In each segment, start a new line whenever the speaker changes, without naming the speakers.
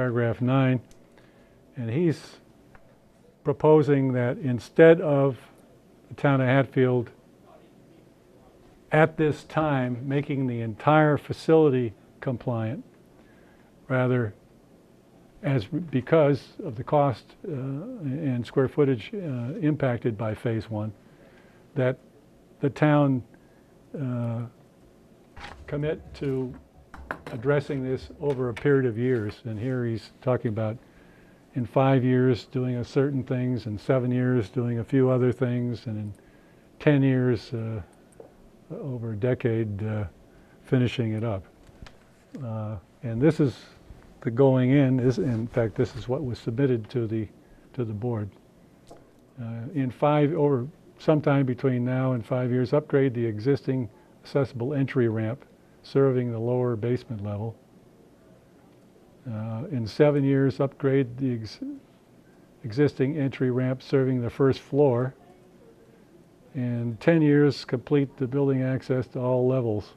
paragraph nine, and he's proposing that instead of the town of Hatfield at this time making the entire facility compliant, rather as because of the cost uh, and square footage uh, impacted by phase one, that the town uh, commit to addressing this over a period of years. And here he's talking about in five years doing a certain things, in seven years doing a few other things, and in 10 years, uh, over a decade, uh, finishing it up. Uh, And this is the going in, is, in fact, this is what was submitted to the, to the board. Uh, In five, or sometime between now and five years, upgrade the existing accessible entry ramp serving the lower basement level. Uh, In seven years, upgrade the ex- existing entry ramp serving the first floor. In 10 years, complete the building access to all levels.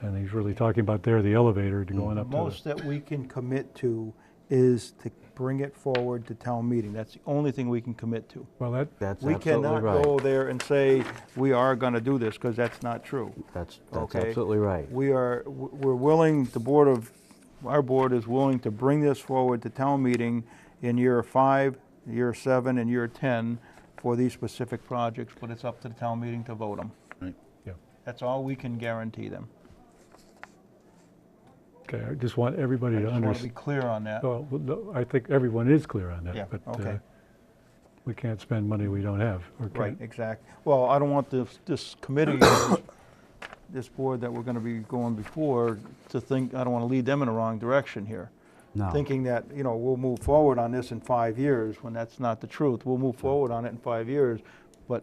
And he's really talking about there, the elevator to going
The
up to the...
most that we can commit to is to bring it forward to town meeting. That's the only thing we can commit to.
Well, that,
That's
We
absolutely
cannot go
right.
there and say, we are going to do this, because that's not true.
That's, that's
Okay.
absolutely right.
We are, w- we're willing, the board of, our board is willing to bring this forward to town meeting in year five, year seven, and year 10 for these specific projects, but it's up to the town meeting to vote them.
yeah.
That's all we can guarantee them.
Okay, I just want everybody
I
to
just want to be
understand.
clear on that.
Well, no, I think everyone is clear on that.
Yeah,
but,
okay.
uh, We can't spend money we don't have. or
Right,
can't-
exact. Well, I don't want this, this committee, or this board that we're gonna be going before to think, I don't wanna lead them in the wrong direction here.
No.
Thinking that, you know, we'll move forward on this in five years, when that's not the truth. We'll move forward on it in five years, but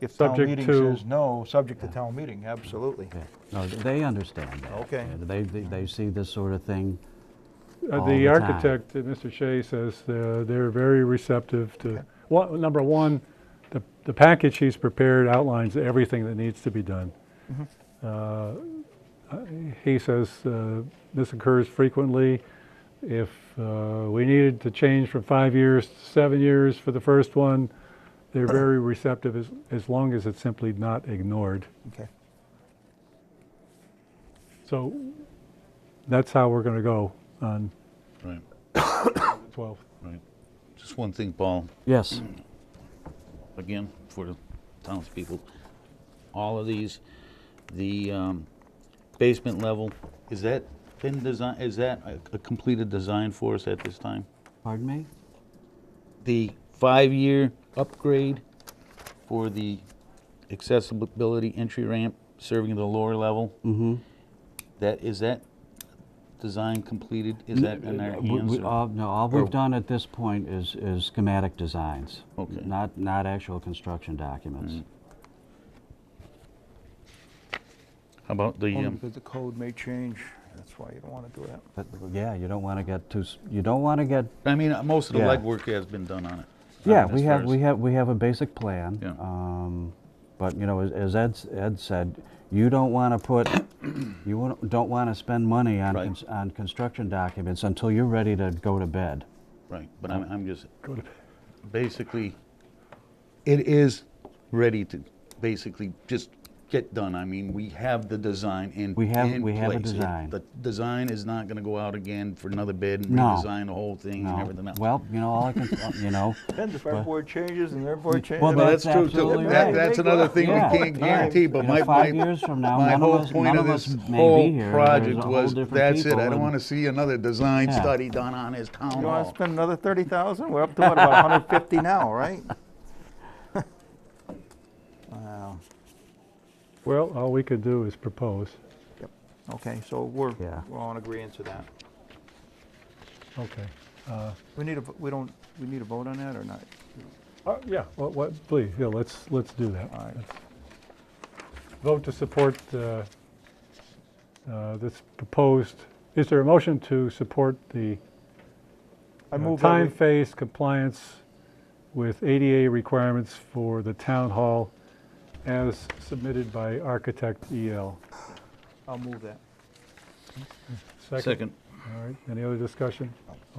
if town
Subject
meeting
to-
says no, subject to town meeting, absolutely.
Yeah. No, th- they understand that.
Okay.
Yeah, They, they, they see this sort of thing.
Uh,
all
The
the time.
architect, uh, Mr. Shea, says uh, they're very receptive to, one- number one, the the package he's prepared outlines everything that needs to be done. Uh, I- He says uh, this occurs frequently. If uh, we needed to change from five years to seven years for the first one, they're very receptive as as long as it's simply not ignored.
Okay,
So that's how we're going to go on
Right,
the 12th.
right. Just one thing, Paul,
Yes,
again, for the townspeople. All of these, the um, basement level, is that been designed, is that a- a completed design for us at this time?
pardon me?
The five-year upgrade for the accessibility entry ramp serving the lower level? Mm-hmm. That, is that design completed? Is that in our
Uh, we-
hands?
we-
or-
all- No, all
or-
we've done at this point is, is schematic designs.
Okay. Mm.
Not, not actual construction documents.
How about the,
only
um,
because the code may change, that's why you don't wanna do that.
But, yeah, you don't want to get too, s- you don't want to get
I mean, uh, most of the
Yeah.
legwork has been done on it.
Yeah,
Um,
we
as
have,
far
we
as-
have, we have a basic plan.
Yeah.
um, But, you know, as- as Ed, s- Ed said, you don't want to put, you wanna- don't want to spend money on,
Right.
cons- on construction documents until you're ready to go to bed.
Right, but I'm, I'm just,
Go to-
basically, it is ready to basically just get done. I mean, we have the design in,
We have-
in
we have a
place. It-
design.
The design is not gonna go out again for another bid and
No.
redesign the whole thing and
No.
everything else.
Well, you know, all I can, uh, you know,
Depends if our board changes and their board changes.
Well,
I mean,
Well,
that's
that's true too.
absolutely
That-
right.
That's another thing we
Yeah,
can't
yeah.
guarantee, but
You know,
my,
five
my-
years from now,
my
none of
whole
us-
point
none
of
of us
this
may be
whole
here. There's a
project
whole
was,
different
that's it.
people
I don't
and-
wanna see another design
Yeah.
study done on his town
You wanna
hall.
spend another thirty thousand? We're up to what, about hundred fifty now, right? Wow.
Well, all we could do is propose.
Yep. Okay, so we're,
Yeah.
we're all in agreement to that.
Okay.
We need a, vo- we don't, we need a vote on that or not?
Uh, Yeah, what, what, please, yeah, let's, let's do that.
All right.
Let's Vote to support uh, uh, this proposed, is there a motion to support the
I
uh,
move that
time
we-
phase compliance with ADA requirements for the town hall as submitted E by architect EL?
I'll move that.
Second,
All right, any other discussion?